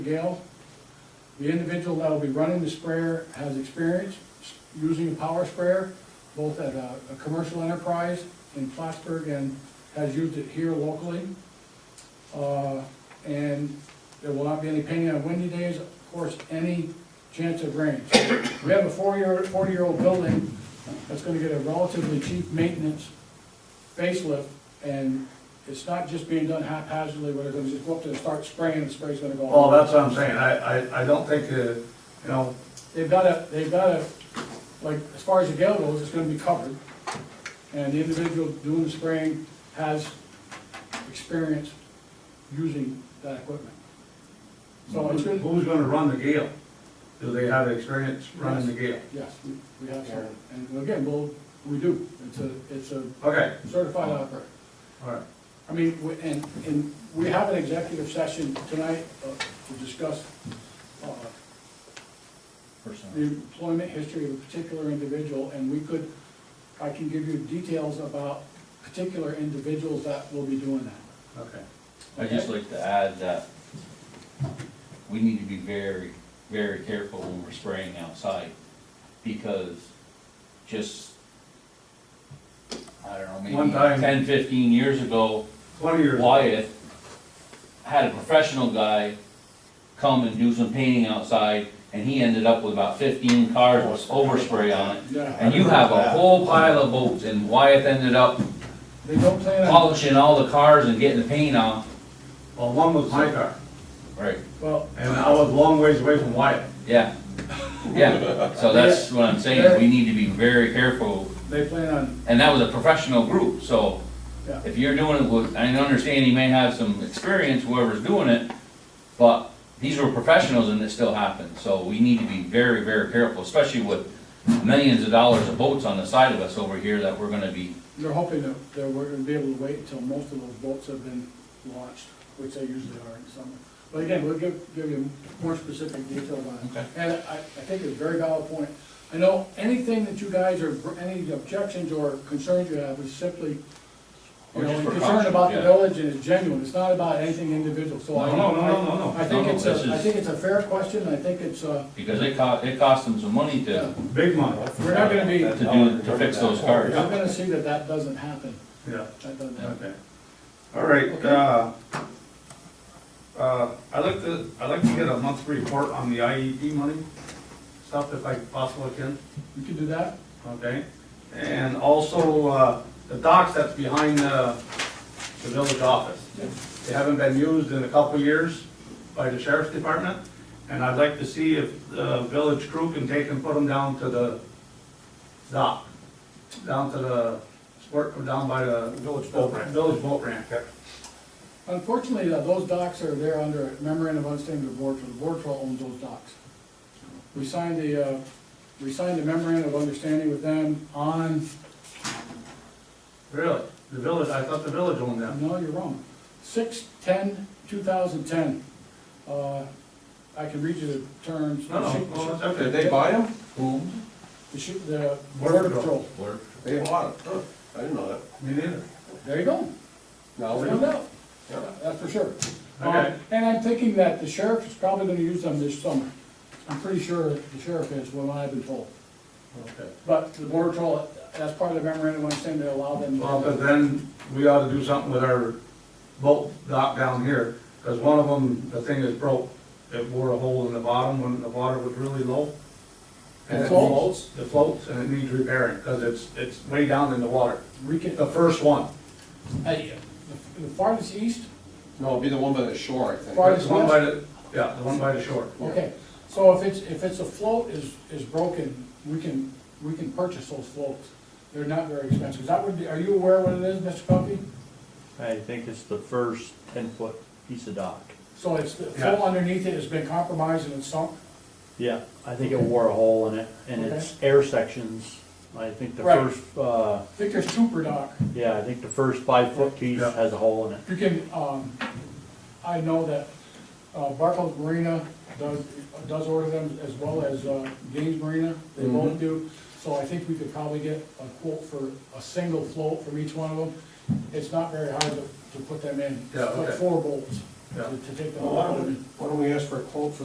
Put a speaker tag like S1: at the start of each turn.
S1: Gale. The individual that will be running the sprayer has experience using a power sprayer, both at a, a commercial enterprise in Plattsburgh and has used it here locally. Uh, and there will not be any painting on windy days, of course, any chance of rain. We have a four-year, forty-year-old building that's gonna get a relatively cheap maintenance facelift, and it's not just being done haphazardly, where they're gonna just go up there and start spraying, the spray's gonna go all
S2: Well,
S1: over.
S2: Oh, that's what I'm saying, I, I, I don't think, uh, you know,
S1: They've got a, they've got a, like, as far as the gale goes, it's gonna be covered. And the individual doing the spraying has experience using that equipment. So Oh, it's
S2: who-
S1: good,
S2: who's gonna run the gale? Do they have experience running the gale?
S1: yes, we- we have some, and again, well, we do, it's a, it's a
S2: Okay,
S1: certified operator.
S2: all right,
S1: I mean, we- and, and we have an executive session tonight uh, to discuss uh, the employment history of a particular individual, and we could, I can give you details about particular individuals that will be doing that.
S2: okay.
S3: I'd just like to add that we need to be very, very careful when we're spraying outside, because just, I don't know,
S2: One
S3: maybe
S2: time-
S3: ten, fifteen years ago,
S2: Twenty years,
S3: Wyatt had a professional guy come and do some painting outside, and he ended up with about fifteen cars with overspray on it.
S1: Yeah,
S3: And you have a whole pile of boats, and Wyatt ended up
S1: they don't plan on,
S3: polishing all the cars and getting the paint off.
S2: well, one was my car,
S3: Right.
S1: well,
S2: and I was a long ways away from Wyatt.
S3: Yeah, yeah, so that's what I'm saying, is we need to be very careful,
S1: they plan on,
S3: and that was a professional group, so
S1: yeah,
S3: if you're doing it with, I understand you may have some experience, whoever's doing it, but these were professionals and it still happened, so we need to be very, very careful, especially with millions of dollars of boats on the side of us over here that we're gonna be,
S1: they're hoping that, that we're gonna be able to wait until most of those boats have been launched, which they usually are in summer. But again, we'll give, give you more specific detail on it.
S3: Okay.
S1: And I, I think it's a very valid point. I know anything that you guys are, any objections or concerns you have is simply You
S3: Or
S1: know,
S3: just
S1: and
S3: for
S1: concern
S3: caution,
S1: about the
S3: yeah.
S1: village and it's genuine, it's not about anything individual, so I.
S2: No, no, no, no, no,
S1: I think
S3: No, no,
S1: it's a,
S3: this
S1: I
S3: is-
S1: think it's a fair question, I think it's, uh,
S3: because it cost, it cost them some money to,
S1: yeah.
S2: big money,
S1: we're not gonna be,
S3: to do, to fix those
S1: we're
S3: cars.
S1: gonna see that that doesn't happen,
S2: yeah,
S1: that doesn't happen.
S2: okay. All right,
S1: Okay.
S2: uh, uh, I'd like to, I'd like to get a monthly report on the IED money, stuff if I possibly can.
S1: You can do that,
S2: Okay, and also, uh, the docks that's behind, uh, the village office. They haven't been used in a couple of years by the sheriff's department, and I'd like to see if the village crew can take and put them down to the dock, down to the, sport, down by the. Village boat ramp. Village boat ramp.
S1: unfortunately, uh, those docks are there under a memorandum of understanding with the board, so the board will own those docks. We signed the, uh, we signed the memorandum of understanding with them on,
S2: Really? The village, I thought the village owned them.
S1: no, you're wrong, six, ten, two thousand ten. Uh, I can read you the terms.
S2: No, no, well, that's okay.
S4: Did they buy them?
S3: Whom?
S1: The shoe, the
S2: Border
S1: border patrol,
S3: Where?
S4: They bought them. Huh, I didn't know that.
S2: Me neither.
S1: there you go,
S4: Now we
S1: found
S4: know.
S1: out,
S4: Yeah.
S1: that's for sure.
S2: Okay.
S1: Um, And I'm thinking that the sheriff is probably gonna use them this summer, I'm pretty sure the sheriff is, from what I've been told.
S2: Okay.
S1: But the border patrol, that's part of the memorandum, I'm saying they allow them. to-
S2: Well, but then we ought to do something with our boat dock down here, because one of them, the thing is broke. It wore a hole in the bottom when the water was really low. And
S1: The
S2: it
S1: floats?
S2: floats, it floats, and it needs repairing, because it's, it's way down in the water.
S1: We can,
S2: The first one,
S1: hey, uh, the farthest east,
S4: No, it'd be the one by the shore, I think.
S1: Right.
S2: the one by the, yeah, the one by the shore.
S1: okay, so if it's, if it's a float is, is broken, we can, we can purchase those floats. They're not very expensive, that would be, are you aware what it is, Mr. Cuffy?
S5: I think it's the first ten-foot piece of dock.
S1: So it's, the
S2: Yeah.
S1: float underneath it has been compromised and it's sunk?
S5: Yeah. I think it wore a hole in it, and it's air sections. I think the
S1: Right.
S5: first, uh,
S1: I think there's two per dock.
S5: yeah, I think the first five-foot piece
S2: Yeah.
S5: has a hole in it.
S1: You can, um, I know that, uh, Barco's Marina does, does order them as well as, uh, Gaines Marina, they
S2: Mm-hmm.
S1: both do. So I think we could probably get a quote for a single float from each one of them. It's not very hard to, to put them in.
S2: Yeah, okay.
S1: Like four bolts.
S2: Yeah.
S1: to to take the.
S4: Why don't we- why don't we ask for a quote for